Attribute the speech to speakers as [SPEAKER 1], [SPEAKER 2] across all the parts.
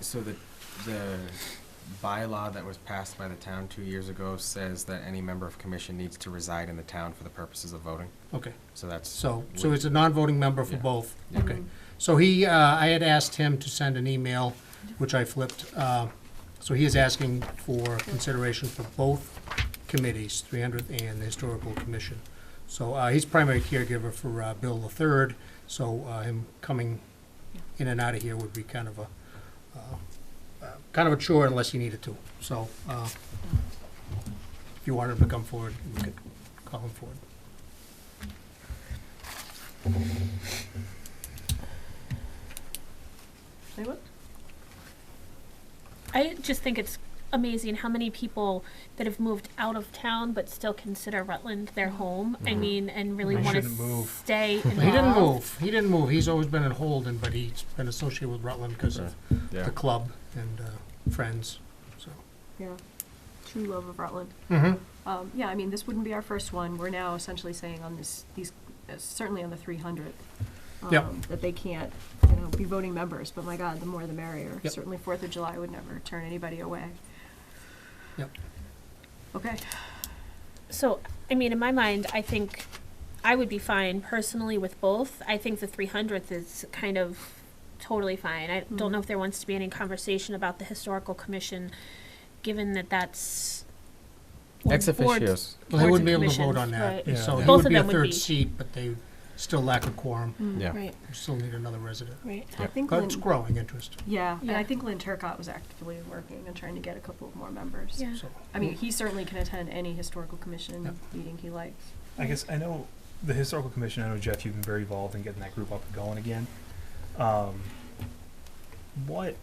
[SPEAKER 1] so the, the bylaw that was passed by the town two years ago says that any member of commission needs to reside in the town for the purposes of voting,
[SPEAKER 2] Okay,
[SPEAKER 1] so that's.
[SPEAKER 2] so, so it's a non-voting member for
[SPEAKER 1] Yeah.
[SPEAKER 2] both?
[SPEAKER 1] Yeah.
[SPEAKER 2] Okay. So he, uh, I had asked him to send an email, which I flipped. uh, So he is asking for consideration for both committees, 300th and the Historical Commission. So uh, he's primary caregiver for uh, Bill III, so uh, him coming in and out of here would be kind of a, uh, uh, kind of a chore unless he needed to. So uh, if you wanted him to come forward, you could call him forward.
[SPEAKER 3] Say what?
[SPEAKER 4] I just think it's amazing how many people that have moved out of town but still consider Rutland their home. I
[SPEAKER 1] Mhm.
[SPEAKER 4] mean, and really
[SPEAKER 2] They
[SPEAKER 4] want to
[SPEAKER 2] shouldn't move.
[SPEAKER 4] stay involved.
[SPEAKER 2] He didn't move. He didn't move. He's always been in Holden, but he's been associated with Rutland because of
[SPEAKER 1] Yeah,
[SPEAKER 2] the club and uh, friends. So.
[SPEAKER 3] Yeah. True love of Rutland.
[SPEAKER 2] Mm-hmm.
[SPEAKER 3] Um, yeah, I mean, this wouldn't be our first one. We're now essentially saying on this, these, uh, certainly on the three hundredth.
[SPEAKER 2] Yep.
[SPEAKER 3] That they can't, you know, be voting members, but my God, the more the merrier.
[SPEAKER 2] Yep.
[SPEAKER 3] Certainly Fourth of July would never turn anybody away.
[SPEAKER 2] Yep.
[SPEAKER 3] Okay,
[SPEAKER 4] So, I mean, in my mind, I think I would be fine personally with both. I think the 300th is kind of totally fine. I don't know if there wants to be any conversation about the historical commission, given that that's
[SPEAKER 1] ex
[SPEAKER 4] boards-
[SPEAKER 1] officios,
[SPEAKER 2] Well, they
[SPEAKER 4] Boards
[SPEAKER 2] wouldn't
[SPEAKER 4] and
[SPEAKER 2] be able to vote
[SPEAKER 4] commissions,
[SPEAKER 2] on that.
[SPEAKER 4] right.
[SPEAKER 2] So
[SPEAKER 1] Yeah.
[SPEAKER 2] he
[SPEAKER 4] Both
[SPEAKER 2] would
[SPEAKER 4] of
[SPEAKER 2] be a
[SPEAKER 4] them would
[SPEAKER 2] third
[SPEAKER 4] be.
[SPEAKER 2] seat, but they still lack a quorum.
[SPEAKER 1] yeah.
[SPEAKER 4] right,
[SPEAKER 2] We Still need another resident.
[SPEAKER 4] right.
[SPEAKER 3] I
[SPEAKER 1] Yep.
[SPEAKER 3] think
[SPEAKER 2] But it's
[SPEAKER 3] Lynn,
[SPEAKER 2] growing interest.
[SPEAKER 3] yeah, and I
[SPEAKER 4] Yeah.
[SPEAKER 3] think Lynn Turcott was actively working and trying to get a couple of more members.
[SPEAKER 4] Yeah.
[SPEAKER 2] So
[SPEAKER 3] I mean, he certainly can attend any historical commission meeting he likes.
[SPEAKER 5] I guess I know the historical commission. I know Jeff, you've been very involved in getting that group up and going again. Um, what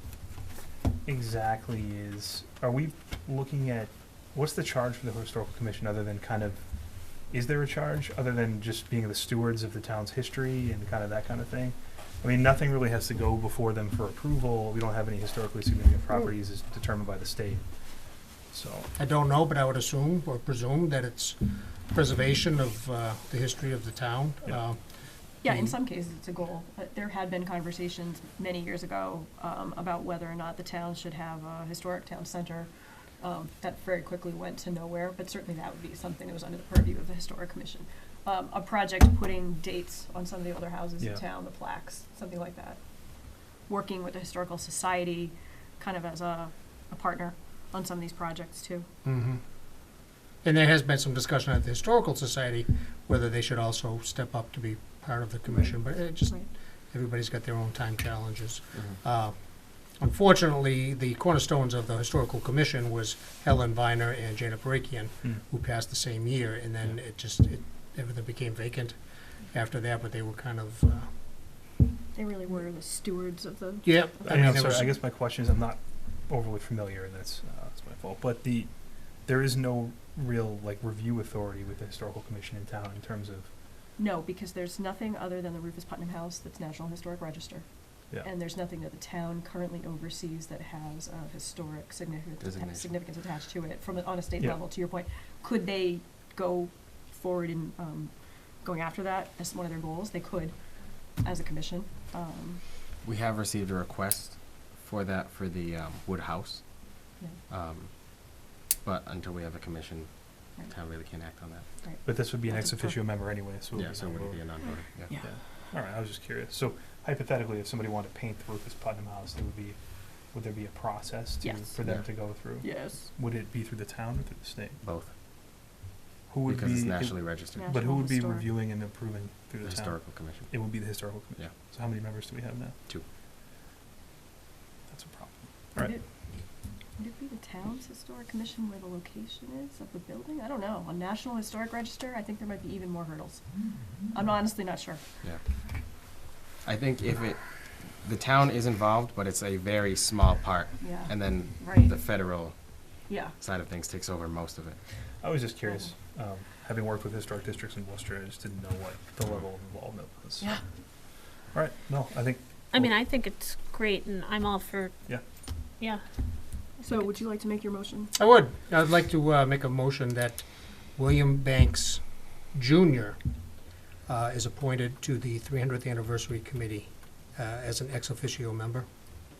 [SPEAKER 5] exactly is? Are we looking at? What's the charge for the historical commission other than kind of? Is there a charge other than just being the stewards of the town's history and kind of that kind of thing? I mean, nothing really has to go before them for approval. We don't have any historically significant properties as determined by the state. So,
[SPEAKER 2] I don't know, but I would assume or presume that it's preservation of uh, the history of the town.
[SPEAKER 5] Yeah.
[SPEAKER 2] Uh,
[SPEAKER 3] Yeah, in
[SPEAKER 2] Mhm.
[SPEAKER 3] some cases, it's a goal. Uh, There had been conversations many years ago um, about whether or not the town should have a historic town center. Um, That very quickly went to nowhere, but certainly that would be something that was under the purview of the Historic Commission. Um, A project putting dates on some of the older houses in
[SPEAKER 5] Yeah.
[SPEAKER 3] town, the plaques, something like that. Working with the Historical Society, kind of as a, a partner on some of these projects too.
[SPEAKER 2] mhm. And there has been some discussion at the Historical Society whether they should also step up to be part of the commission, but it just,
[SPEAKER 3] Right.
[SPEAKER 2] everybody's got their own time challenges.
[SPEAKER 3] Mm-hmm.
[SPEAKER 1] Mhm.
[SPEAKER 2] Uh, Unfortunately, the cornerstones of the Historical Commission was Helen Viner and Jana Parakian,
[SPEAKER 5] Hmm.
[SPEAKER 2] who passed the same year, and then it just, it, everything became vacant after that, but they were kind of, uh,
[SPEAKER 3] They really were the stewards of the.
[SPEAKER 2] yeah.
[SPEAKER 5] I
[SPEAKER 2] mean,
[SPEAKER 5] mean, I'm
[SPEAKER 2] there
[SPEAKER 5] sorry,
[SPEAKER 2] was-
[SPEAKER 5] I guess my question is, I'm not overly familiar, and that's, uh, that's my fault, but the, there is no real, like, review authority with the historical commission in town in terms of,
[SPEAKER 3] No, because there's nothing other than the Rufus Putnam House that's National Historic Register.
[SPEAKER 5] Yeah.
[SPEAKER 3] And there's nothing that the town currently oversees that has a historic
[SPEAKER 1] Designation.
[SPEAKER 3] significance, significance attached to it from, a- on a state
[SPEAKER 5] Yeah.
[SPEAKER 3] level, to your point. Could they go forward in, um, going after that as one of their goals? They could, as a commission. Um,
[SPEAKER 1] We have received a request for that for the, um, Wood House,
[SPEAKER 3] yeah,
[SPEAKER 1] um, but until we have a commission,
[SPEAKER 3] Right.
[SPEAKER 1] town really can't act on that.
[SPEAKER 3] right.
[SPEAKER 5] but this would be an
[SPEAKER 3] That's
[SPEAKER 5] ex
[SPEAKER 3] a per-
[SPEAKER 5] officio member anyway, so. it would
[SPEAKER 1] Yeah,
[SPEAKER 5] be
[SPEAKER 1] so it would
[SPEAKER 5] non-voting.
[SPEAKER 1] be a non-voting, yeah.
[SPEAKER 3] Yeah.
[SPEAKER 5] All right, I was just curious. So hypothetically, if somebody wanted to paint the Rufus Putnam House, there would be, would there be a process to,
[SPEAKER 3] Yes.
[SPEAKER 5] for them
[SPEAKER 1] Yeah.
[SPEAKER 5] to go through?
[SPEAKER 3] Yes.
[SPEAKER 5] Would it be through the town or through the state?
[SPEAKER 1] Both,
[SPEAKER 5] Who would
[SPEAKER 1] because it's
[SPEAKER 5] be- it-
[SPEAKER 1] nationally registered,
[SPEAKER 3] Yeah.
[SPEAKER 5] But who
[SPEAKER 3] National
[SPEAKER 5] would be
[SPEAKER 3] Historic.
[SPEAKER 5] reviewing and approving
[SPEAKER 1] the
[SPEAKER 5] through the town?
[SPEAKER 1] historical commission.
[SPEAKER 5] It would be the historical commission. So how many members do we have now?
[SPEAKER 1] Two.
[SPEAKER 5] That's a problem.
[SPEAKER 3] Would
[SPEAKER 5] Right.
[SPEAKER 3] it- Would it be the town's historic commission where the location is of the building? I don't know. On National Historic Register, I think there might be even more hurdles. I'm honestly not sure.
[SPEAKER 1] Yeah. I think if it, the town is involved, but it's a very small part.
[SPEAKER 3] Yeah.
[SPEAKER 1] And then
[SPEAKER 3] Right.
[SPEAKER 1] the federal
[SPEAKER 3] Yeah.
[SPEAKER 1] side of things takes over most of it.
[SPEAKER 5] I was just curious, um, having worked with historic districts in Worcester, I just didn't know what the level of involvement was.
[SPEAKER 3] Yeah.
[SPEAKER 5] All right, no, I think,
[SPEAKER 4] I mean, I think it's great, and I'm all for
[SPEAKER 5] Yeah.
[SPEAKER 4] yeah.
[SPEAKER 3] So would you like to make your motion?
[SPEAKER 2] I would. I'd like to uh, make a motion that William Banks Jr. uh, is appointed to the 300th Anniversary Committee uh, as an ex officio member.